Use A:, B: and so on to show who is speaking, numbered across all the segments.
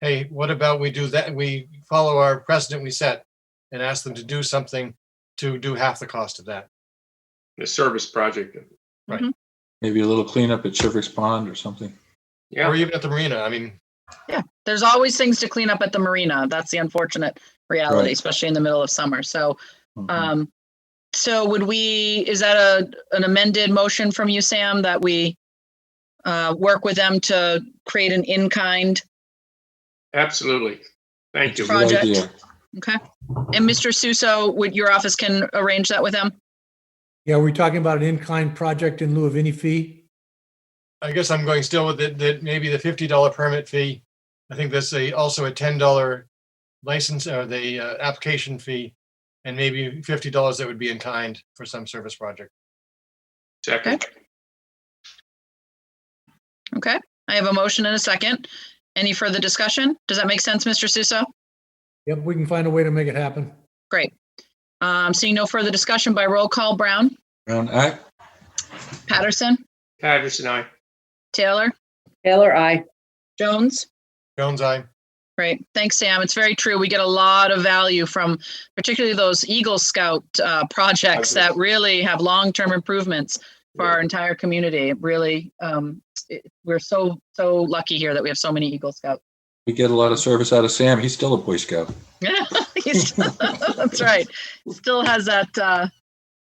A: hey, what about we do that? We follow our precedent we set and ask them to do something to do half the cost of that.
B: the service project.
C: Maybe a little cleanup at Shivers Pond or something.
A: Or
B: Yeah,
A: even at the marina. I mean,
D: There's always things to clean up at the marina. That's the unfortunate reality,
C: Right.
D: especially in the middle of summer. So,
C: Mhm.
D: um, so would we, is that a, an amended motion from you, Sam, that we uh, work with them to create an in-kind?
B: absolutely. Thank you.
C: Good
D: Project.
C: idea.
D: Okay. And Mr. Suso, would your office can arrange that with them?
E: Yeah, we're talking about an in-kind project in lieu of any fee.
A: I guess I'm going still with it, that maybe the fifty dollar permit fee. I think there's a, also a ten dollar license or the uh, application fee and maybe fifty dollars that would be in kind for some service project.
B: Second,
D: Okay. I have a motion and a second. Any further discussion? Does that make sense, Mr. Suso?
E: Yep, we can find a way to make it happen.
D: Great. Um, seeing no further discussion by roll call, Brown,
C: Brown act,
D: Patterson,
B: Patterson, aye.
D: Taylor,
F: Taylor, I.
D: Jones.
A: Jones, I.
D: Right. Thanks, Sam. It's very true. We get a lot of value from particularly those Eagle Scout uh, projects
B: Agreed.
D: that really have long-term improvements for
B: Yeah.
D: our entire community. It Really, um, it, we're so, so lucky here that we have so many Eagle Scouts.
C: we get a lot of service out of Sam. He's still a Boy Scout.
D: Yeah, he's- that's right. Still has that, uh,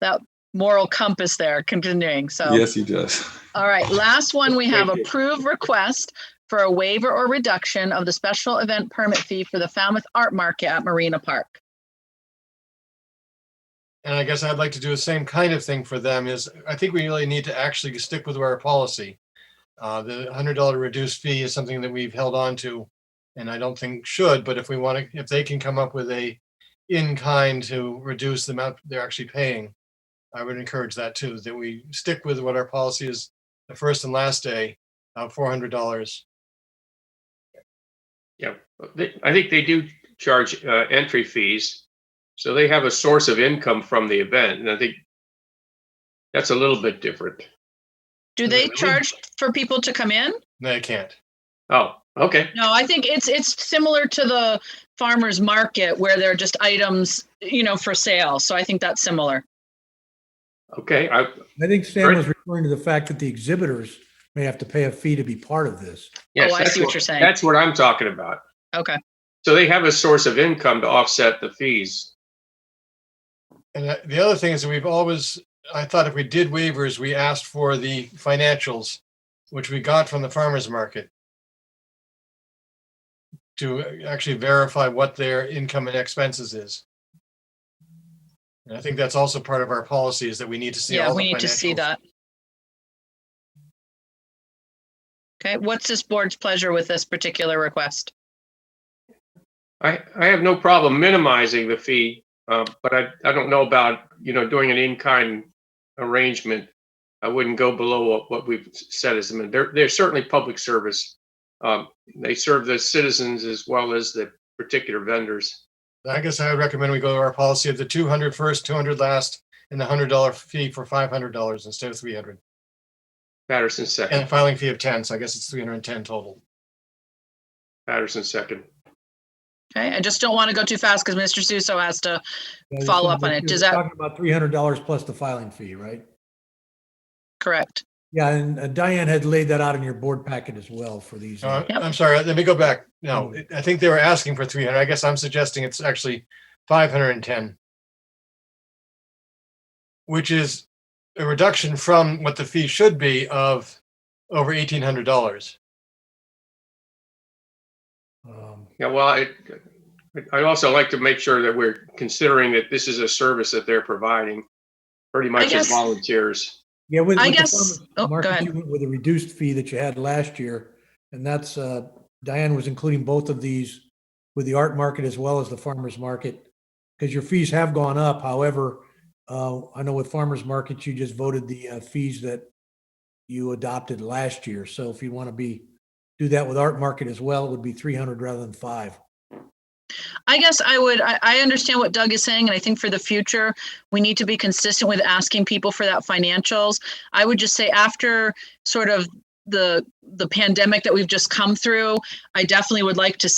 D: that moral compass there continuing. So.
C: Yes, he does.
D: All right, last one, we have
B: Thank you.
D: approved request for a waiver or reduction of the special event permit fee for the Falmouth Art Market at Marina Park.
A: And I guess I'd like to do the same kind of thing for them is, I think we really need to actually stick with our policy. Uh, the hundred dollar reduced fee is something that we've held on to and I don't think should, but if we want to, if they can come up with a in kind to reduce the amount they're actually paying, I would encourage that too, that we stick with what our policy is, the first and last day, uh, four hundred dollars.
B: Yeah, They- I think they do charge uh, entry fees. So they have a source of income from the event, and I think that's a little bit different.
D: Do
A: Is it
D: they
A: really?
D: charge for people to come in?
A: No, I can't.
B: Oh, okay.
D: No, I think it's, it's similar to the farmer's market where they're just items, you know, for sale. So I think that's similar.
B: Okay, I,
E: I think Sam
B: Right.
E: was referring to the fact that the exhibitors may have to pay a fee to be part of this.
B: yes.
D: Oh, I
B: that's
D: see what you're saying.
B: That's what I'm talking about.
D: Okay,
B: So they have a source of income to offset the fees.
A: And uh, the other thing is that we've always, I thought if we did waivers, we asked for the financials, which we got from the farmer's market to actually verify what their income and expenses is. And I think that's also part of our policy is that we need to see
D: yeah,
A: all
D: we
A: the
D: need to see
A: financials.
D: that. Okay, what's this board's pleasure with this particular request?
B: I, I have no problem minimizing the fee, uh, but I, I don't know about, you know, doing an in-kind arrangement. I wouldn't go below what, what we've said as, a min- they're, they're certainly public service. Um, They serve the citizens as well as the particular vendors.
A: I guess I would recommend we go to our policy of the 200 first, 200 last, and the $100 fee for $500 instead of 300.
B: Patterson
A: And a
B: second,
A: filing fee of 10, so I guess it's 310 total.
B: Patterson second.
D: Okay, I just don't want to go too fast because Mr. Suso has to Follow up on it. Does
E: We're
D: that-
E: Talking about three hundred dollars plus the filing fee, right?
D: correct.
E: Yeah, and uh, Diane had laid that out in your board packet as well for these. uh,
A: No, I-
D: Yep.
A: I'm sorry, let me go back. No,
E: Mm.
A: it- I think they were asking for three hundred. I guess I'm suggesting it's actually five hundred and ten. Which is a reduction from what the fee should be of over eighteen hundred dollars.
E: um,
B: Yeah, well, I, I'd also like to make sure that we're considering that this is a service that they're providing pretty much as
D: guess-
B: volunteers.
E: Yeah, with.
D: I
E: with the
D: guess,
E: farmer's
D: oh, go
E: market,
D: ahead.
E: you went With a reduced fee that you had last year, and that's, uh, Diane was including both of these with the art market as well as the farmer's market. Because your fees have gone up, however, uh, I know with farmer's markets, you just voted the uh, fees that you adopted last year. So if you want to be, do that with art market as well, it would be three hundred rather than five.
D: I guess I would, I, I understand what Doug is saying, and I think for the future, we need to be consistent with asking people for that financials. I would just say after sort of the, the pandemic that we've just come through, I definitely would like to